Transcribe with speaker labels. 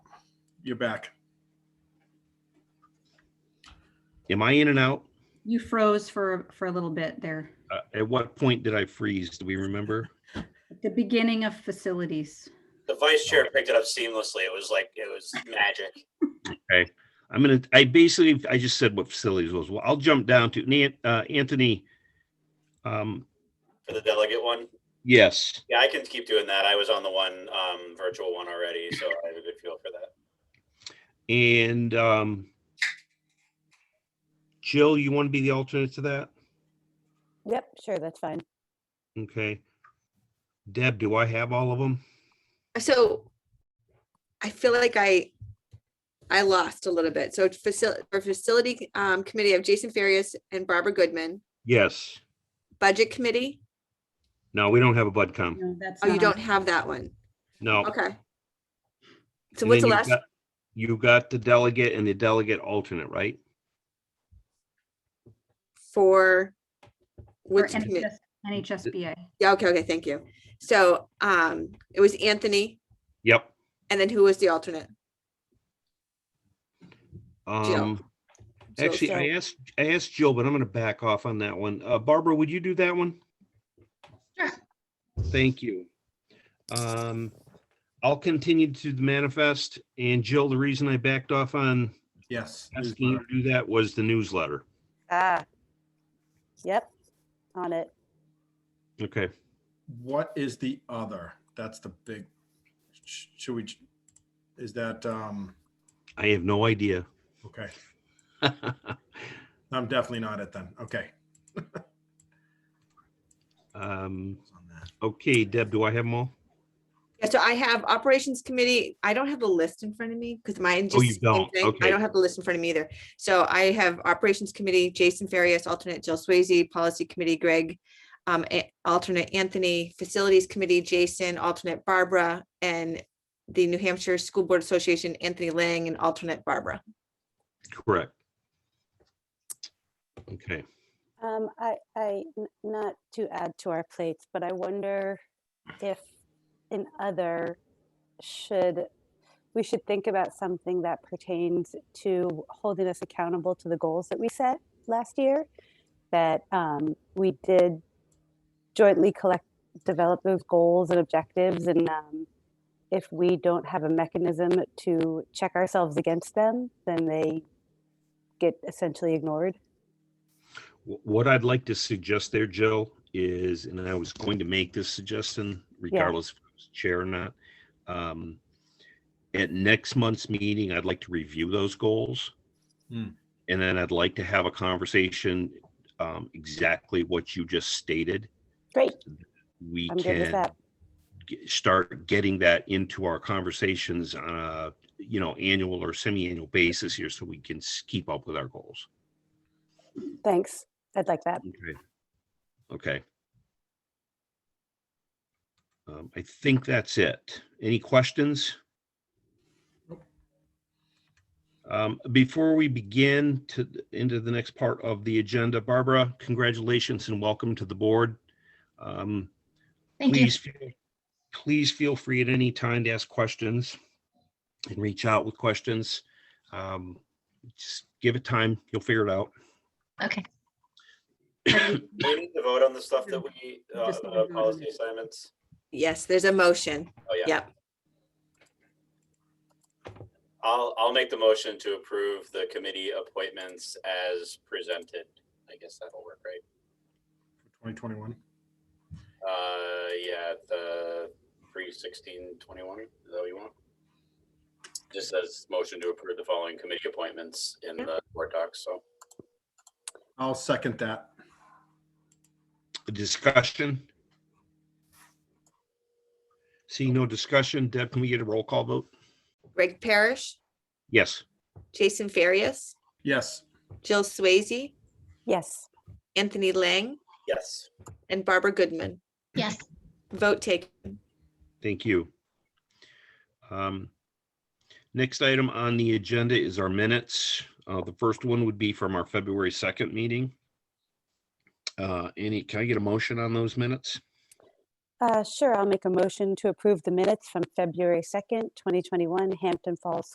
Speaker 1: you're back.
Speaker 2: Am I in and out?
Speaker 3: You froze for, for a little bit there.
Speaker 2: Uh, At what point did I freeze? Do we remember?
Speaker 3: The beginning of facilities.
Speaker 4: The vice chair picked it up seamlessly. It was like, it was magic.
Speaker 2: I'm gonna, I basically, I just said what facilities was. Well, I'll jump down to Nan- uh, Anthony. Um,
Speaker 4: For the delegate one,
Speaker 2: yes,
Speaker 4: yeah, I can keep doing that. I was on the one, um, virtual one already, so I have a good feel for that.
Speaker 2: and, um, Jill, you want to be the alternate to that?
Speaker 5: Yep, sure, that's fine.
Speaker 2: Okay. Deb, do I have all of them?
Speaker 6: So I feel like I, I lost a little bit. So facility, for facility um, committee of Jason Farias and Barbara Goodman,
Speaker 2: Yes.
Speaker 6: budget committee.
Speaker 2: No, we don't have a budcom.
Speaker 3: No, that's um,
Speaker 2: Uh-huh.
Speaker 3: not
Speaker 6: Oh, you
Speaker 3: on.
Speaker 6: don't have that one.
Speaker 2: No.
Speaker 6: Okay.
Speaker 2: And
Speaker 6: So what's the
Speaker 2: then you've
Speaker 6: last?
Speaker 2: got- You got the delegate and the delegate alternate, right?
Speaker 6: for
Speaker 3: For
Speaker 6: which committee?
Speaker 3: NHS NHSBA.
Speaker 6: Yeah, okay, okay, thank you. So um, it was Anthony,
Speaker 2: Yep.
Speaker 6: and then who was the alternate?
Speaker 2: Um,
Speaker 6: So-
Speaker 2: actually, I asked, I asked Jill, but I'm gonna back off on that one. Uh, Barbara, would you do that one?
Speaker 6: Sure.
Speaker 2: Thank you. Um, I'll continue to the manifest and Jill, the reason I backed off on
Speaker 1: Yes.
Speaker 2: asking you to do that was the newsletter.
Speaker 5: Ah. Yep, on it.
Speaker 2: Okay.
Speaker 1: What is the other? That's the big, sh- should we, is that, um,
Speaker 2: I have no idea.
Speaker 1: okay, I'm definitely not it then. Okay.
Speaker 2: Um,
Speaker 1: On that.
Speaker 2: okay, Deb, do I have them all?
Speaker 6: Yeah, so I have operations committee. I don't have the list in front of me because mine just.
Speaker 2: Oh, you
Speaker 6: same
Speaker 2: don't,
Speaker 6: thing.
Speaker 2: okay.
Speaker 6: I don't have the list in front of me either. So I have operations committee, Jason Farias, alternate Jill Swayze, policy committee, Greg. Um, a- alternate Anthony, facilities committee, Jason, alternate Barbara, and the New Hampshire School Board Association, Anthony Lang, and alternate Barbara.
Speaker 2: Correct. Okay,
Speaker 5: Um, I, I, n- not to add to our plates, but I wonder if an other should, we should think about something that pertains to holding us accountable to the goals that we set last year. That, um, we did jointly collect, develop those goals and objectives and, um, if we don't have a mechanism to check ourselves against them, then they get essentially ignored.
Speaker 2: Wh- what I'd like to suggest there, Jill, is, and I was going to make this suggestion regardless if I was chair or not. um, At next month's meeting, I'd like to review those goals.
Speaker 1: Hmm.
Speaker 2: And then I'd like to have a conversation, um, exactly what you just stated.
Speaker 5: Great,
Speaker 2: We
Speaker 5: I'm good with
Speaker 2: can
Speaker 5: that.
Speaker 2: g- start getting that into our conversations on a, you know, annual or semi-annual basis here so we can s- keep up with our goals.
Speaker 5: Thanks. I'd like that.
Speaker 2: Okay. Okay. Um, I think that's it. Any questions?
Speaker 1: Nope.
Speaker 2: Um, before we begin to, into the next part of the agenda, Barbara, congratulations and welcome to the board. Um,
Speaker 7: Thank you.
Speaker 2: please feel- Please feel free at any time to ask questions and reach out with questions. Um, just give it time, you'll figure it out.
Speaker 7: Okay.
Speaker 4: Do we need to vote on the stuff that we, uh,
Speaker 3: Just need to
Speaker 4: uh,
Speaker 3: vote on
Speaker 4: policy
Speaker 3: it.
Speaker 4: assignments?
Speaker 6: Yes, there's a motion.
Speaker 4: Oh, yeah.
Speaker 6: Yep.
Speaker 4: I'll, I'll make the motion to approve the committee appointments as presented. I guess that'll work, right?
Speaker 1: 2021.
Speaker 4: Uh, yeah, the three sixteen twenty-one, is that what you want? Just says motion to approve the following committee appointments in the board docs, so.
Speaker 1: I'll second that.
Speaker 2: Discussion? See no discussion. Deb, can we get a roll call vote?
Speaker 6: Greg Parrish,
Speaker 2: Yes.
Speaker 6: Jason Farias,
Speaker 1: Yes.
Speaker 6: Jill Swayze,
Speaker 5: Yes.
Speaker 6: Anthony Lang,
Speaker 4: Yes.
Speaker 6: and Barbara Goodman.
Speaker 7: Yes.
Speaker 6: Vote taken.
Speaker 2: Thank you. Um, Next item on the agenda is our minutes. Uh, The first one would be from our February 2nd meeting. Uh, Any, can I get a motion on those minutes?
Speaker 5: Uh, sure, I'll make a motion to approve the minutes from February 2nd, 2021 Hampton Falls